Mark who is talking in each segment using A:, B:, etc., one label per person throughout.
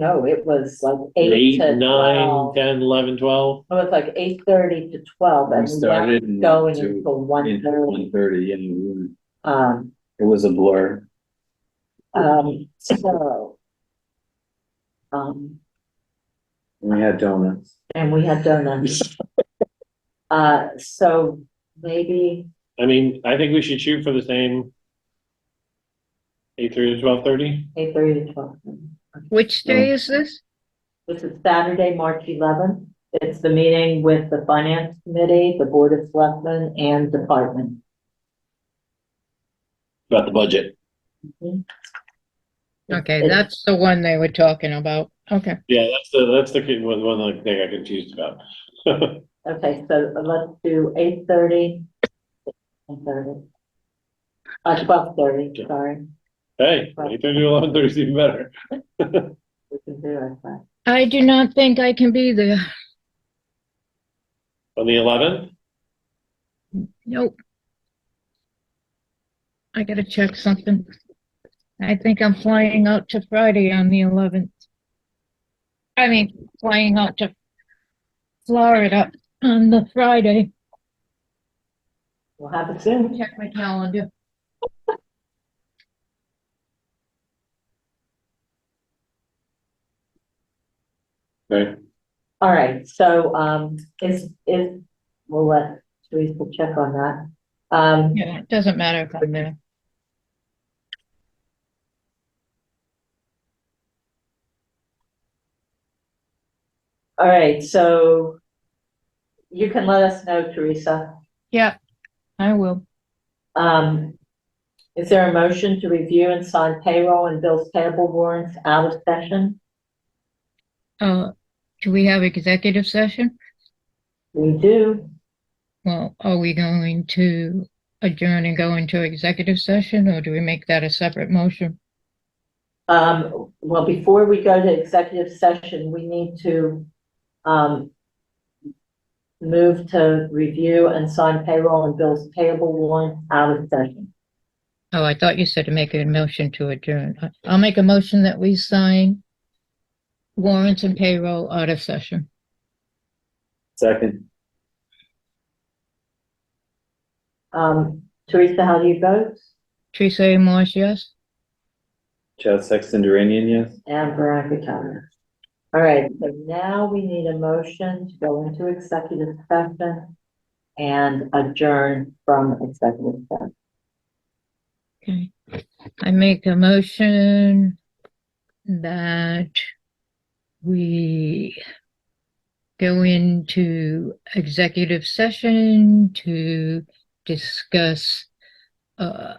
A: No, it was like eight
B: Eight,
A: to
B: nine,
A: twelve.
B: ten, eleven, twelve.
A: It was like eight thirty to twelve
C: We
A: and we went
C: started and
A: going
C: to-
A: until one
C: in
A: thirty.
C: 1:30, and we were-
A: Um,
C: it was a blur.
A: um, so. Um,
C: We had donuts.
A: and we had donuts. Uh, so maybe,
B: I mean, I think we should shoot for the same. Eight thirty to twelve thirty,
A: eight thirty to twelve.
D: Which day is this?
A: This is Saturday, March eleventh. It's the meeting with the finance committee, the board of selectmen and department.
B: about the budget.
D: Okay,
A: It's-
D: that's the one they were talking about. Okay.
B: Yeah, that's the, that's the kid- one, one like, thing I confused about.
A: Okay, so let's do eight thirty. Eight thirty. Uh, twelve thirty, sorry,
B: Hey, eight thirty to eleven thirty is even better.
A: we can do it, but,
D: I do not think I can be there.
B: On the eleventh,
D: Nope. I gotta check something. I think I'm flying out to Friday on the eleventh. I mean, flying out to Florida on the Friday.
A: we'll have it soon.
D: Check my calendar.
C: Right.
A: All right, so, um, is, is, we'll let Teresa check on that. Um,
D: Yeah, it doesn't matter if I'm there.
A: all right, so you can let us know, Teresa.
D: Yeah, I will.
A: Um, is there a motion to review and sign payroll and bills payable warrants out of session?
D: Uh, do we have executive session?
A: We do.
D: Well, are we going to adjourn and go into executive session, or do we make that a separate motion?
A: Um, well, before we go to executive session, we need to, um, move to review and sign payroll and bills payable warrant out of session.
D: Oh, I thought you said to make a motion to adjourn. I- I'll make a motion that we sign warrants and payroll out of session.
C: Second,
A: Um, Teresa, how do you vote?
D: Teresa A. Marsh, yes?
C: Chad Sexton Duranian, yes?
A: And Veronica Callender. All right, so now we need a motion to go into executive session and adjourn from executive session.
D: Okay. I make a motion that we go into executive session to discuss uh,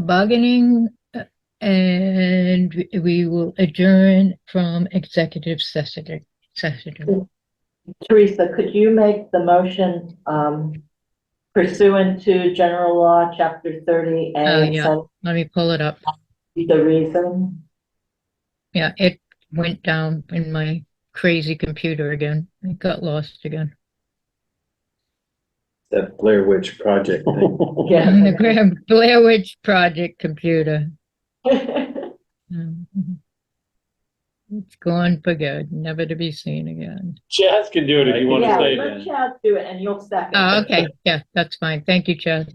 D: bargaining uh, and we- we will adjourn from executive session. session.
A: Teresa, could you make the motion, um, pursuant to general law, chapter thirty
D: Oh,
A: A,
D: yeah. Let me pull it up.
A: the reason?
D: Yeah, it went down in my crazy computer again. It got lost again.
C: That Blair Witch Project thing.
D: On the Graham Blair Witch Project computer. Mhm. It's gone for good, never to be seen again.
B: Chaz can do it if you want to
A: Yeah,
B: stay.
A: let Chad do it and you'll second.
D: Oh, okay, yeah, that's fine. Thank you, Chad.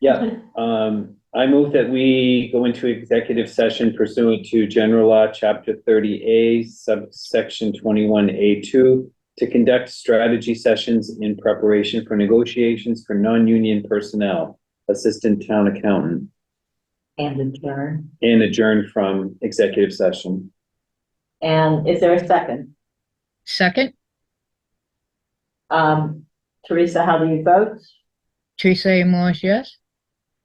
C: Yeah, um, I move that we go into executive session pursuant to general law, chapter thirty A, subsection twenty-one A two, to conduct strategy sessions in preparation for negotiations for non-union personnel, assistant town accountant,
A: And adjourn.
C: and adjourn from executive session.
A: And is there a second?
D: Second,
A: Um, Teresa, how do you vote?
D: Teresa A. Marsh, yes?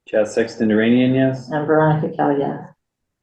C: Chad Sexton Duranian, yes?
A: And Veronica Kell, yes.